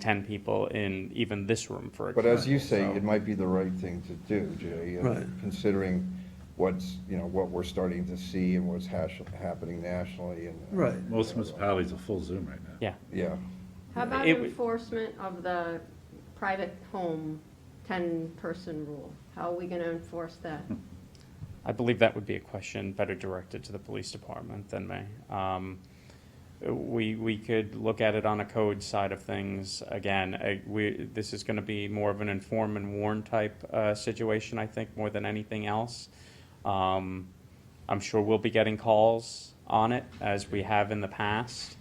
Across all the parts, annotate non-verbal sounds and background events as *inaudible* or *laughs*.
ten people in even this room for. But as you say, example, it so- might be the right thing to do, Jay, uh, Right. considering what's, you know, what we're starting to see and what's hash- happening nationally and. uh, Right. Most municipalities are full Zoom right now. Yeah, Yeah, How about It w- enforcement of the private home ten-person rule? How are we gonna enforce that? I believe that would be a question better directed to the police department than me. Um, we, we could look at it on a code side of things. Again, I, we, this is gonna be more of an inform and warn type, uh, situation, I think, more than anything else. Um, I'm sure we'll be getting calls on it as we have in the past.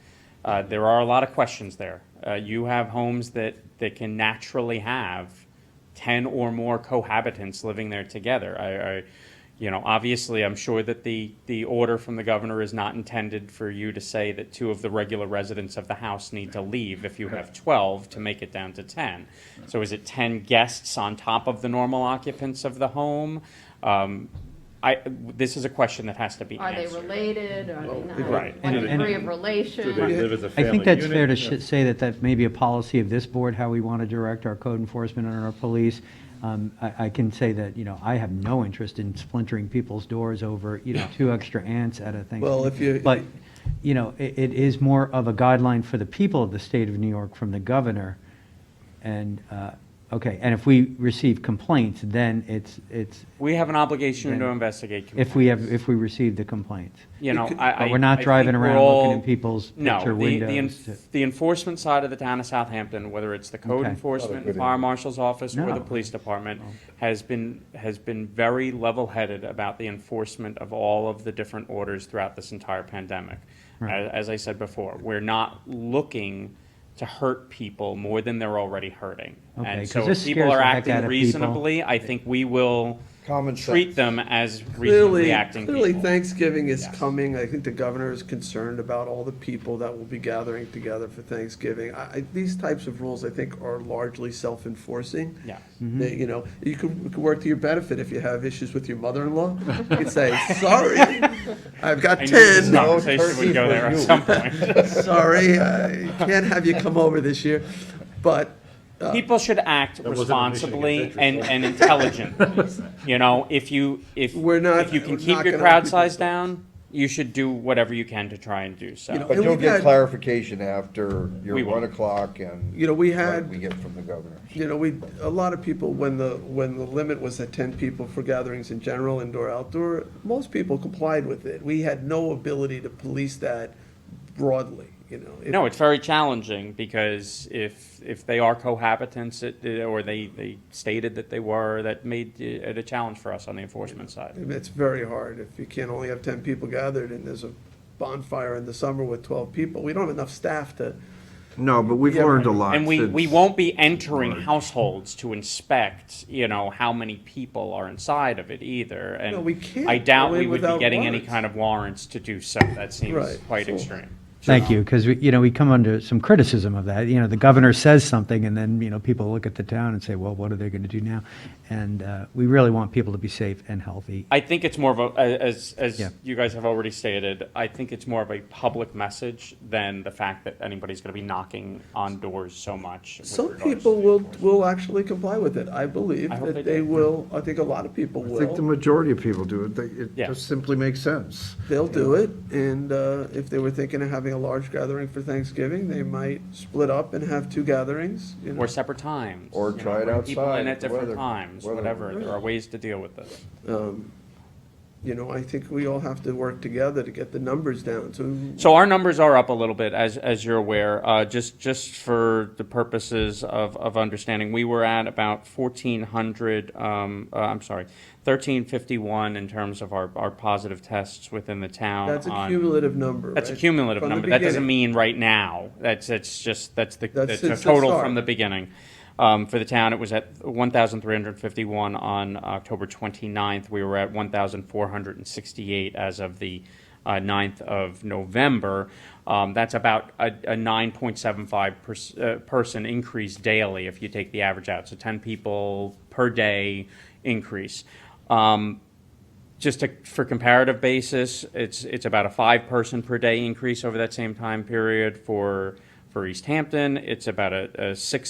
Uh, there are a lot of questions there. Uh, you have homes that, that can naturally have ten or more cohabitants living there together. I, I, you know, obviously, I'm sure that the, the order from the governor is not intended for you to say that two of the regular residents of the house need to leave if you have twelve to make it down to ten. So is it ten guests on top of the normal occupants of the home? Um, I, this is a question that has to be Are answered. they related, are they not? Right. What And- and- degree of Do they relation? live as a I family think that's fair to unit? sh- say that that may be a policy of this board, how we want to direct our code enforcement and our police. Um, I, I can say that, you know, I have no interest in splintering people's doors over, you know, two extra ants at a thing. Well, if you- But, you know, it, it is more of a guideline for the people of the state of New York from the governor. And, uh, okay, and if we receive complaints, then it's, it's, We have an obligation to Then- investigate. if we have, complaints. if we receive the complaints. You know, I, I. But we're not I driving think we're around looking all- in people's No, the- picture the windows enf- to- The enforcement side of the town of Southampton, whether it's the code Okay. enforcement, Other good fire idea. marshal's office, or the No. police department, has been, has been very level-headed about the enforcement of all of the different orders throughout this entire pandemic. As, as I said before, we're not looking to hurt people more than they're already hurting. Okay, And 'cause so if this people scares are the heck out acting of people. reasonably, I think we will Common treat sense. them as reasonably Clearly, acting people. clearly Thanksgiving is Yes. coming. I think the governor is concerned about all the people that will be gathering together for Thanksgiving. I, I, these types of rules, I think, are largely self-enforcing. Yes. They- you know, you could, it could work to your benefit if you have issues with your mother-in-law. You *laughs* could say, sorry, I've got I knew this ten. conversation would go there at some point. *laughs* Sorry, I can't have you come over this year. But People should act wasn't a mission responsibly against and, interest, and intelligently. You know, if you, if, We're not- if you can we're keep not your gonna crowd let size people- down, you should do whatever you can to try and do You know, so. but And you'll we've get had- clarification after your We will. one o'clock and. You know, we what had- We get from the governor. you know, we, a lot of people, when the, when the limit was at ten people for gatherings in general, indoor, outdoor, most people complied with it. We had no ability to police that broadly, you know. If- No, it's very challenging because if, if they are cohabitants it- or they, they stated that they were, that made it a challenge for us on the enforcement side. It's very hard if you can't only have ten people gathered and there's a bonfire in the summer with twelve people. We don't have enough staff to, No, but we've Yeah, learned a lot. And we, we since- won't be entering households to inspect, you know, how many people are inside of it either. And No, we can't I doubt go we in would be without getting any warrants. kind of warrants to do so. That seems Right. quite So- extreme. Thank you, because we, you know, we come under some criticism of that. You know, the governor says something, and then, you know, people look at the town and say, well, what are they going to do now? And uh, we really want people to be safe and healthy. I think it's more of a, as, Yeah. as you guys have already stated, I think it's more of a public message than the fact that anybody's gonna be knocking on doors so much. with some regards people to- will, will actually comply with it. I believe I hope they that they do. will, I think a lot of people I think the will. majority of people do it. They- It Yeah. just simply makes sense. They'll do it, and, uh, if they were thinking of having a large gathering for Thanksgiving, they might split up and have two gatherings, you know. Or separate times. Or you know, try it bring People in outside, at different weather- times, weather. whatever. There are ways to deal with this. you know, I think we all have to work together to get the numbers down to, So our numbers are up a little bit, as, as you're aware, uh, just, just for the purposes of, of understanding, we were at about fourteen hundred, um, uh, I'm sorry, thirteen fifty-one in terms of our, our positive tests within the town. that's a on- cumulative number, That's a right? cumulative From the number. That doesn't beginning. mean right now. That's, it's just, that's the, That's that's a since the total start. from the beginning. Um, for the town, it was at one thousand three hundred fifty-one on October 29th. We were at one thousand four hundred and sixty-eight as of the uh, ninth of November. Um, that's about a, a nine point seven five uh, person increase daily if you take the average out. So ten people per day increase. Um, just to, for comparative basis, it's, it's about a five person per day increase over that same time period for, for for East Hampton. It's about a, a six